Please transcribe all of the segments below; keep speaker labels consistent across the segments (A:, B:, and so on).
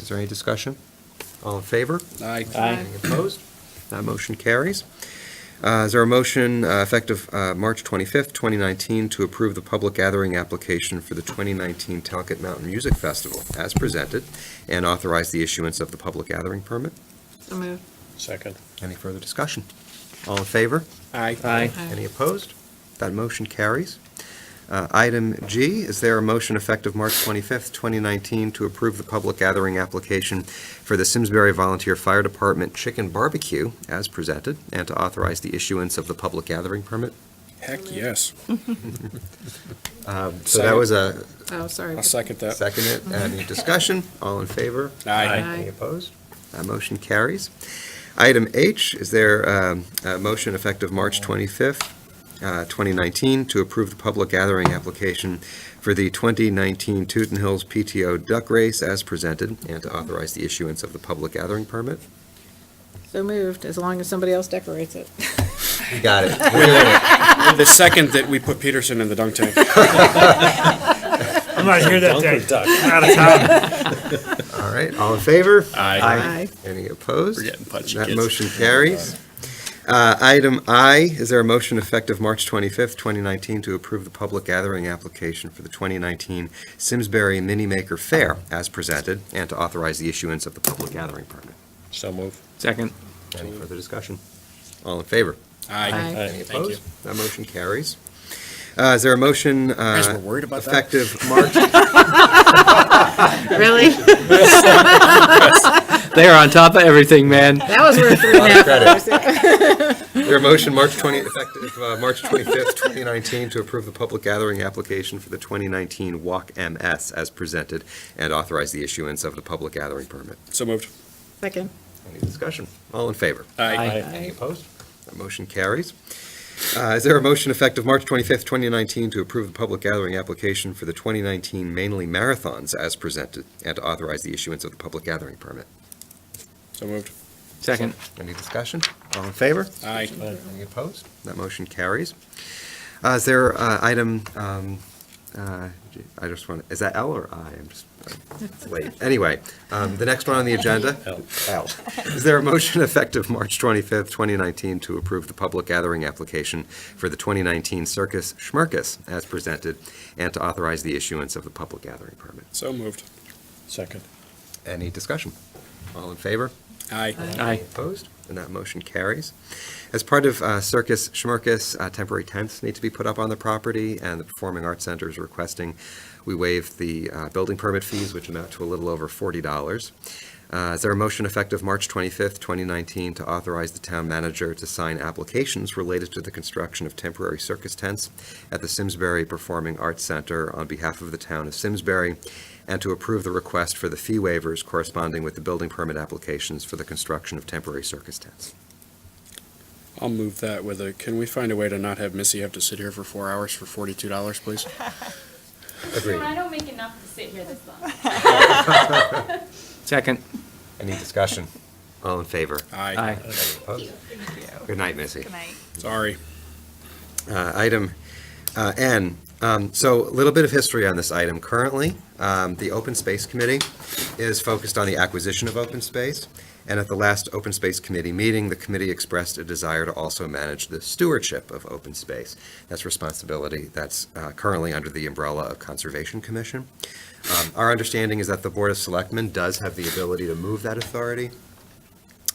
A: Is there any discussion? All in favor?
B: Aye.
C: Aye.
A: Any opposed? That motion carries. Uh, Is there a motion uh, effective uh, March 25th, 2019, to approve the public gathering application for the 2019 Talcott Mountain Music Festival as presented and authorize the issuance of the public gathering permit?
C: So moved.
B: Second.
A: Any further discussion? All in favor?
B: Aye.
C: Aye.
A: Any opposed? That motion carries. Uh, Item G, is there a motion effective March 25th, 2019, to approve the public gathering application for the Simsbury Volunteer Fire Department Chicken Barbecue as presented, and to authorize the issuance of the public gathering permit?
B: Heck, yes.
A: So that was a
C: Oh, sorry.
B: I'll second that.
A: second it. Any discussion? All in favor?
C: Aye.
A: Any opposed? That motion carries. Item H, is there um, a motion effective March 25th, uh, 2019, to approve the public gathering application for the 2019 Tooten Hills PTO Duck Race as presented, and to authorize the issuance of the public gathering permit?
C: So moved, as long as somebody else decorates it.
A: You got it. We're doing it.
B: The second that we put Peterson in the dunk tank.
D: I'm not here that day. I'm out of town.
A: All right, all in favor?
B: Aye.
C: Aye.
A: Any opposed?
B: We're getting punchy,
A: That
B: kids.
A: motion carries. Uh, Item I, is there a motion effective March 25th, 2019, to approve the public gathering application for the 2019 Simsbury Mini Maker Fair as presented, and to authorize the issuance of the public gathering permit?
B: So move.
D: Second.
A: Any further discussion? All in favor?
C: Aye.
A: Any
B: Thank you.
A: opposed? That motion carries. Uh, Is there a motion
B: Guys,
A: uh,
B: we're worried about that.
A: effective March?
C: Really?
D: They are on top of everything, man.
C: That was worth three and a half hours.
A: Is there a motion, March 20, effective uh, March 25th, 2019, to approve the public gathering application for the 2019 Walk MS as presented and authorize the issuance of the public gathering permit?
B: So moved.
C: Second.
A: Any discussion? All in favor?
B: Aye.
A: Any opposed? That motion carries. Uh, Is there a motion effective March 25th, 2019, to approve the public gathering application for the 2019 mainly marathons as presented and to authorize the issuance of the public gathering permit?
B: So moved.
D: Second.
A: Any discussion? All in favor?
B: Aye.
A: Any opposed? That motion carries. Uh, Is there uh, item, um, uh, G- I just want, is that L or I? I'm just, I'm- it's late. Anyway, um, the next one on the agenda?
B: L.
A: L. Is there a motion effective March 25th, 2019, to approve the public gathering application for the 2019 Circus Schmerkus as presented, and to authorize the issuance of the public gathering permit?
B: So moved. Second.
A: Any discussion? All in favor?
B: Aye.
D: Aye.
A: Opposed? And that motion carries. As part of uh, Circus Schmerkus, uh, temporary tents need to be put up on the property, and the Performing Arts Center is requesting we waive the uh, building permit fees, which amount to a little over $40. Uh, Is there a motion effective March 25th, 2019, to authorize the town manager to sign applications related to the construction of temporary circus tents at the Simsbury Performing Arts Center on behalf of the town of Simsbury, and to approve the request for the fee waivers corresponding with the building permit applications for the construction of temporary circus tents.
B: I'll move that with a, can we find a way to not have Missy have to sit here for four hours for forty-two dollars, please?
E: You know, I don't make enough to sit here this long.
D: Second.
A: Any discussion? All in favor?
D: Aye.
A: Good night, Missy.
B: Sorry.
A: Uh, Item uh, N, Um, so a little bit of history on this item. Currently, um, the Open Space Committee is focused on the acquisition of open space, and at the last Open Space Committee meeting, the committee expressed a desire to also manage the stewardship of open space. That's responsibility that's uh, currently under the umbrella of Conservation Commission. Um, Our understanding is that the Board of Selectmen does have the ability to move that authority,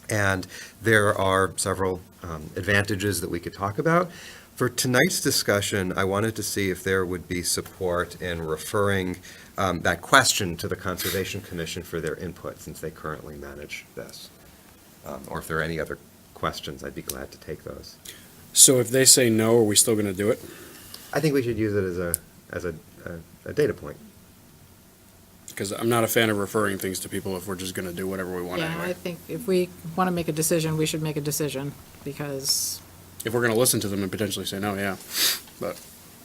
A: and there are several um, advantages that we could talk about. For tonight's discussion, I wanted to see if there would be support in referring um, that question to the Conservation Commission for their input, since they currently manage this. Um, Or if there are any other questions, I'd be glad to take those.
B: So if they say no, are we still gonna do it?
A: I think we should use it as a, as a, a- a data point.
B: Because I'm not a fan of referring things to people if we're just gonna do whatever we want
C: Yeah, I
B: anyway.
C: think if we want to make a decision, we should make a decision, because,
B: If we're gonna listen to them and potentially say no, yeah. But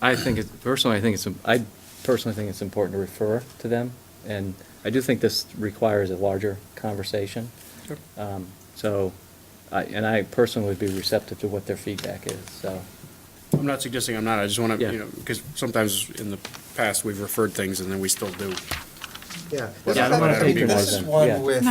D: I think it's, personally, I think it's, I personally think it's important to refer to them. And I do think this requires a larger conversation.
B: Sure.
D: Um, So, I, and I personally would be receptive to what their feedback is, so.
B: I'm not suggesting I'm not, I just wanna,
D: Yeah.
B: you know, because sometimes in the past, we've referred things and then we still do Yeah.
A: Yeah, I don't wanna
B: This is
A: patronize them.
B: one
A: Yeah.
B: with